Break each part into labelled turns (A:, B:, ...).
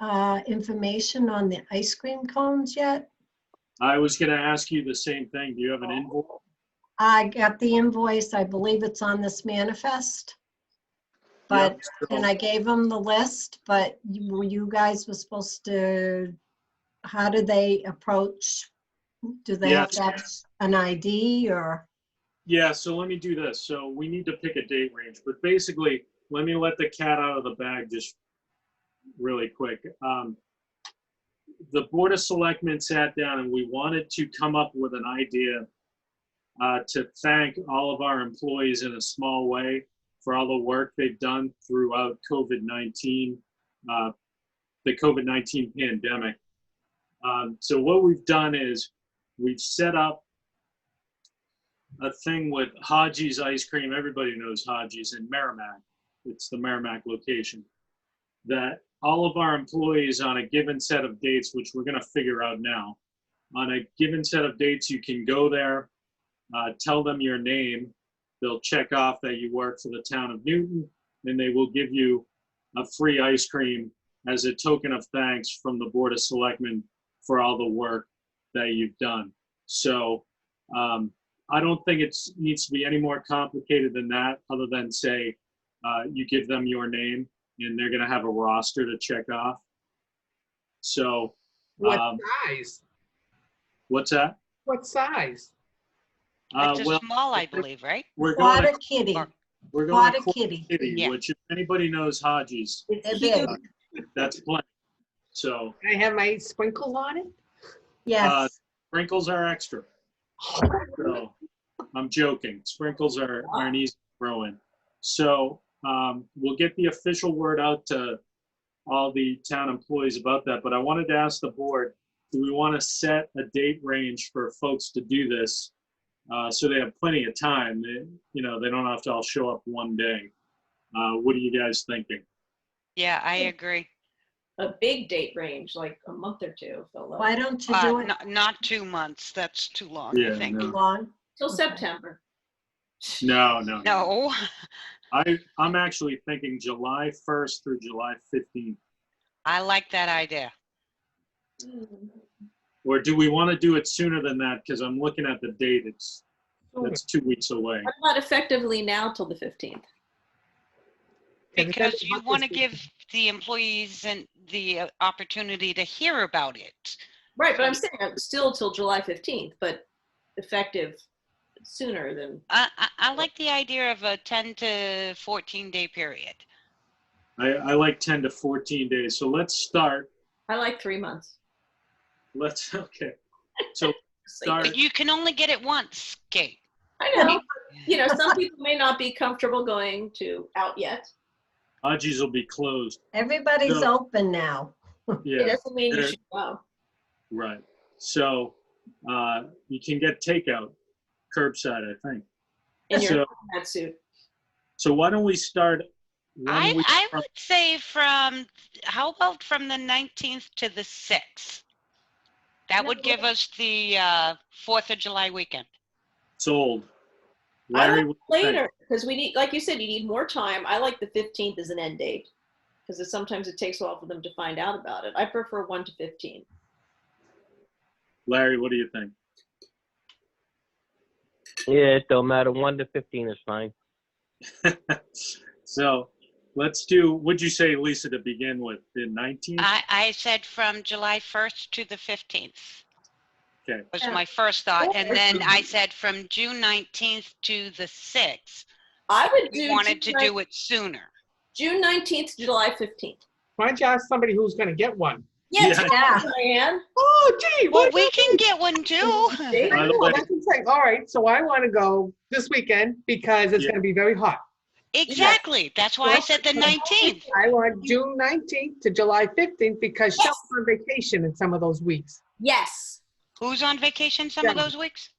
A: uh, information on the ice cream cones yet?
B: I was gonna ask you the same thing. Do you have an invoice?
A: I got the invoice, I believe it's on this manifest. But,
B: Yep, so-
A: and I gave them the list, but you you guys were supposed to, how do they approach? Do they have to have
B: Yes.
A: an ID or?
B: Yeah, so let me do this. So we need to pick a date range, but basically, let me let the cat out of the bag just really quick. Um, The Board of Selectmen sat down and we wanted to come up with an idea uh, to thank all of our employees in a small way for all the work they've done throughout COVID-19, uh, the COVID-19 pandemic. Um, So what we've done is we've set up a thing with Haji's Ice Cream. Everybody knows Haji's in Merrimack. It's the Merrimack location. That all of our employees on a given set of dates, which we're going to figure out now, on a given set of dates, you can go there, uh, tell them your name. They'll check off that you work for the town of Newton, and they will give you a free ice cream as a token of thanks from the Board of Selectmen for all the work that you've done. So, um, I don't think it's, needs to be any more complicated than that, other than say, uh, you give them your name and they're gonna have a roster to check off. So,
C: What
B: Um,
C: size?
B: what's that?
C: What size?
B: Uh,
D: It's
B: well,
D: a small, I believe, right?
B: we're going,
A: Water
B: to-
A: kitty,
D: or-
B: we're going
A: water
B: to Quad
A: kitty.
B: City,
D: Yeah.
B: which if anybody knows Hodges,
A: They're
C: Can
A: big,
B: Uh, that's plenty. So
C: I have my sprinkles on it?
B: uh,
A: Yes,
B: sprinkles are extra. So, I'm joking. Sprinkles are, are an easy throw in. So, um, we'll get the official word out to all the town employees about that, but I wanted to ask the board, do we want to set a date range for folks to do this? Uh, so they have plenty of time, They- you know, they don't have to all show up one day. Uh, what are you guys thinking?
D: Yeah, I agree.
E: a big date range, like a month or two, so
A: why
E: like,
A: don't you do
D: Uh,
A: it
D: not, not two months, that's too long,
B: Yeah,
D: I think.
B: no.
A: long?
E: till September.
B: No, no.
D: No,
B: I, I'm actually thinking July 1st through July 15th.
D: I like that idea.
B: Or do we want to do it sooner than that? Because I'm looking at the date, it's,
C: Sure.
B: it's two weeks away.
E: I'm not effectively now till the fifteenth.
C: Yeah, we gotta
D: Because you
C: mark
D: want to
C: this
D: give the employees and the uh, opportunity to hear about it.
E: Right, but I'm saying I'm still till July fifteenth, but effective sooner than,
D: I, I, I like the idea of a 10 to 14 day period.
B: I, I like 10 to 14 days. So let's start.
E: I like three months.
B: Let's, okay. So
E: It's
B: start,
E: like-
D: But you can only get it once, Kate.
E: I know, but, you know, some people may not be comfortable going to out yet.
B: Haji's will be closed.
A: Everybody's
B: No.
A: open now.
E: It
B: Yeah,
E: doesn't mean you
B: Sure.
E: should go.
B: right. So, uh, you can get takeout curbside, I think.
E: in your
B: So,
E: hazmat suit.
B: so why don't we start? one
D: I,
B: week
D: I
B: from-
D: would say from, how about from the 19th to the 6th? That would
E: No.
D: give us the uh, 4th of July weekend.
B: Sold.
E: I
B: Larry,
E: like
B: what do you think?
E: Later, because we need, like you said, you need more time. I like the fifteenth as an end date. Because sometimes it takes a while for them to find out about it. I prefer one to fifteen.
B: Larry, what do you think?
F: Yeah, it don't matter. One to fifteen is fine.
B: So let's do, what'd you say, Lisa, to begin with? The
E: Mm.
B: 19th?
D: I, I said from July 1st to the 15th.
B: Okay.
D: Was
E: Yeah.
D: my first thought. And
E: Okay.
D: then I said from June 19th to the 6th.
E: I would
D: We
E: do.
D: wanted to
E: June
D: do it sooner.
E: June 19th, to July 15th.
C: Why don't you ask somebody who's gonna get one?
B: Yeah.
E: tell
A: Yeah.
E: them, Diane.
C: Oh, gee,
D: Well,
C: what?
D: we can get one too.
C: I
B: By the
C: know,
B: way-
C: that's what I'm saying. All right, so I wanna go this weekend because it's
B: Yeah.
C: gonna be very hot.
D: Exactly. That's why I said the 19th.
C: I want June nineteenth to July fifteenth because
E: Yes.
C: Shell's on vacation in some of those weeks.
E: Yes.
D: Who's on vacation some of
C: Yeah.
D: those weeks?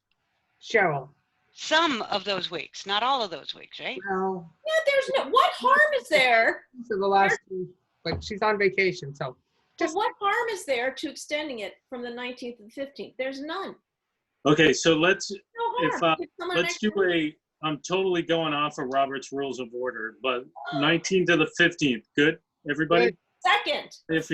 C: Cheryl,
D: Some of those weeks, not all of those weeks, right?
C: well,
E: Yeah, there's no, what harm is there?
C: for the last, two, but she's on vacation, so.
E: But what harm is there to extending it from the 19th to the 15th? There's none.
B: Okay, so let's,
E: No
B: If, uh,
E: harm. Give someone an
B: Let's
E: extra
B: do a, I'm totally going off of Robert's Rules of Order, but 19 to the 15th, good? Everybody,
E: Second.
B: if